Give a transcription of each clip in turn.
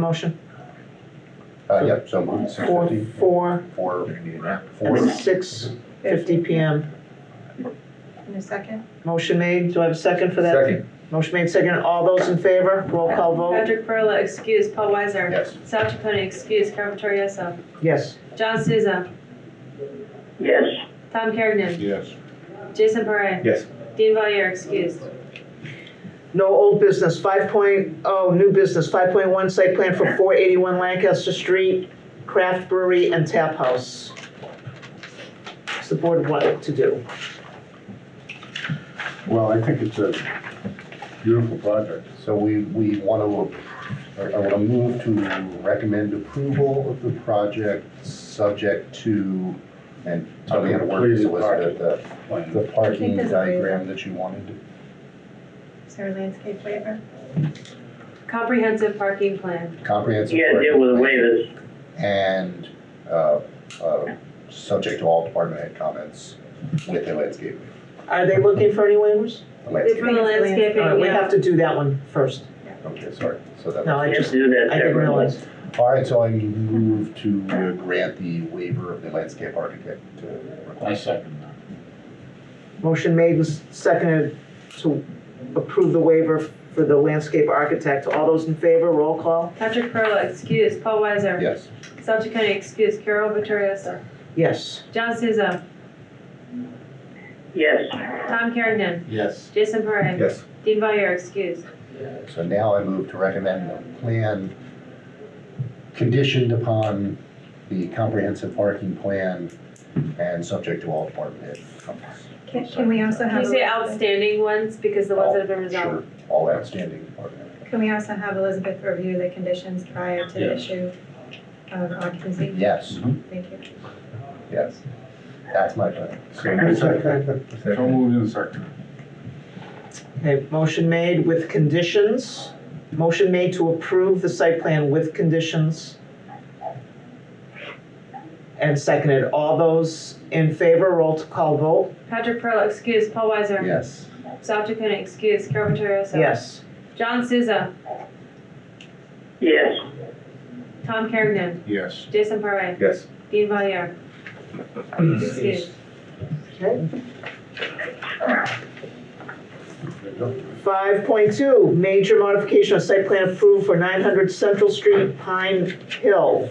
Motion Uh, yep, so moved. four, four, Four, and four, six fifty PM. In a second? Motion made, do I have a second for that? second, Motion made, second, all those in favor, roll call vote, Patrick Perla, excuse. Paul Weiser. yes. South Chacony, excuse. Carol Torriello. yes. John Souza. yes, Tom Kergnen. Yes. Jason Parre. Yes. Dean Valier, excuse. No old business, five oh, new business, five point one, site plan for four eighty-one Lancaster Street, Craft Brewery and Tap House. What's the board want to do? Well, I think it's a beautiful project. So we, we want to, I want to move to recommend approval of the project, subject to, and tell me how to word this, Elizabeth, the, plan. the parking diagram that you wanted. Is there a landscape waiver? Comprehensive parking plan. Comprehensive. yeah, deal with waivers, And, uh, uh, subject to all department head comments with a landscape, Are they looking for any waivers? a It's landscape. for the landscaping, All right, we Uh, yeah. have to do that one first, Okay, sorry, so that. no, I you have to just, do that I didn't separately. realize. All right, so I move to uh, grant the waiver of the landscape architect to request. second that. Motion made and seconded to approve the waiver for the landscape architect. All those in favor, roll call? Patrick Perla, excuse. Paul Weiser. Yes, South Chacony, excuse. Carol Torriello. Yes. John Souza. Yes, Tom Kergnen. Yes. Jason Parre. yes. Dean Valier, excuse. So now I move to recommend a plan conditioned upon the comprehensive parking plan and subject to all department head comments. Can, can we also Can have? you a say Elizabeth- outstanding ones because the ones that have been Sure, resolved? all outstanding department. head Can we also have Elizabeth review the conditions prior to the Yes. issue of comments. occupancy? Yes, Mm-hmm. Thank you. yes. That's my plan. So moved in second. Okay, motion made with conditions. Motion made to approve the site plan with conditions. And seconded. All those in favor, roll call vote? Patrick Perla, excuse. Paul Weiser. Yes, South Chacony, excuse. Carol Torriello. Yes. John Souza. yes, Tom Kergnen. Yes. Jason Parre. yes. Dean Valier. Excuse. Okay. There you go. Five point two, major modification of site plan approved for nine hundred Central Street, Pine Hill.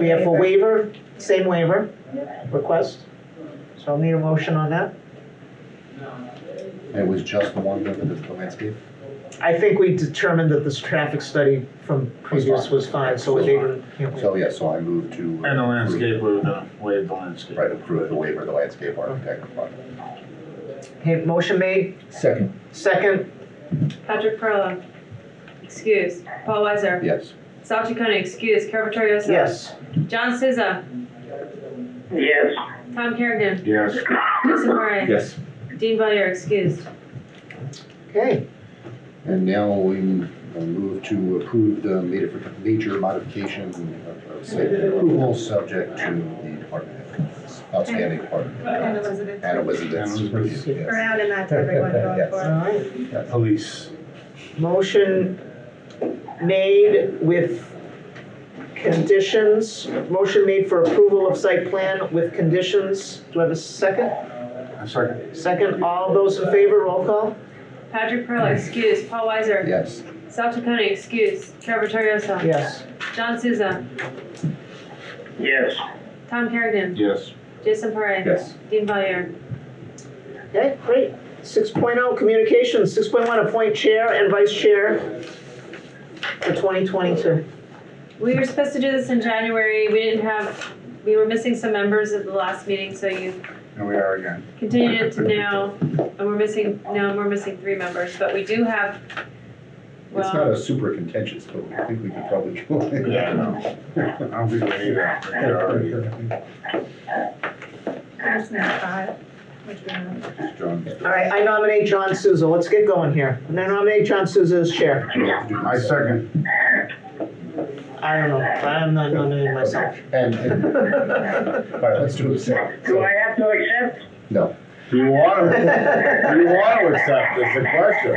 We have a waiver, same waiver request. So I'll need a motion on that. It was just the one over the the landscape? I think we determined that this traffic study from previous was fine, so they didn't. you know, So, yeah, so I move to. uh, And the landscape, we were gonna waive the landscape. Right, approve the waiver of the landscape architect. Okay, motion made, Second. second, Patrick Perla. Excuse. Paul Weiser. Yes. South Chacony, excuse. Carol Torriello. yes. John Souza. yes, Tom Kergnen. Yes. Jason Parre. Yes. Dean Valier, excused. Okay, And now we move to approve the major, major modification of of site plan approval, subject to the department head comments, outstanding department. head And comments. Elizabeth, And Elizabeth's And review, Elizabeth's. we're yes. adding that to everyone going Yes. all forward. right. Police. Motion made with conditions, motion made for approval of site plan with conditions. Do I have a second? A second. Second, all those in favor, roll call? Patrick Perla, excuse. Paul Weiser. Yes, South Chacony, excuse. Carol Torriello. Yes. John Souza. yes, Tom Kergnen. Yes. Jason Parre. Yes. Dean Valier. Okay, great. Six oh, communications, six point one, appoint chair and vice chair for twenty twenty-two. We were supposed to do this in January. We didn't have, we were missing some members at the last meeting, so you Here we are again. continued it to now, and we're missing, now we're missing three members, but we do have, it's not well, a super contentious, but I think we could probably. Yeah, I know. I don't think we need that. I think they're already- That's not five, which we know. John, All right, I nominate John Souza. Let's get going here. I nominate John Souza as chair. you have to do I this. second. I don't know, I'm not nominating myself. And, and, all right, let's do it. do I have to accept? No, Do you want to, do you want to accept is the question?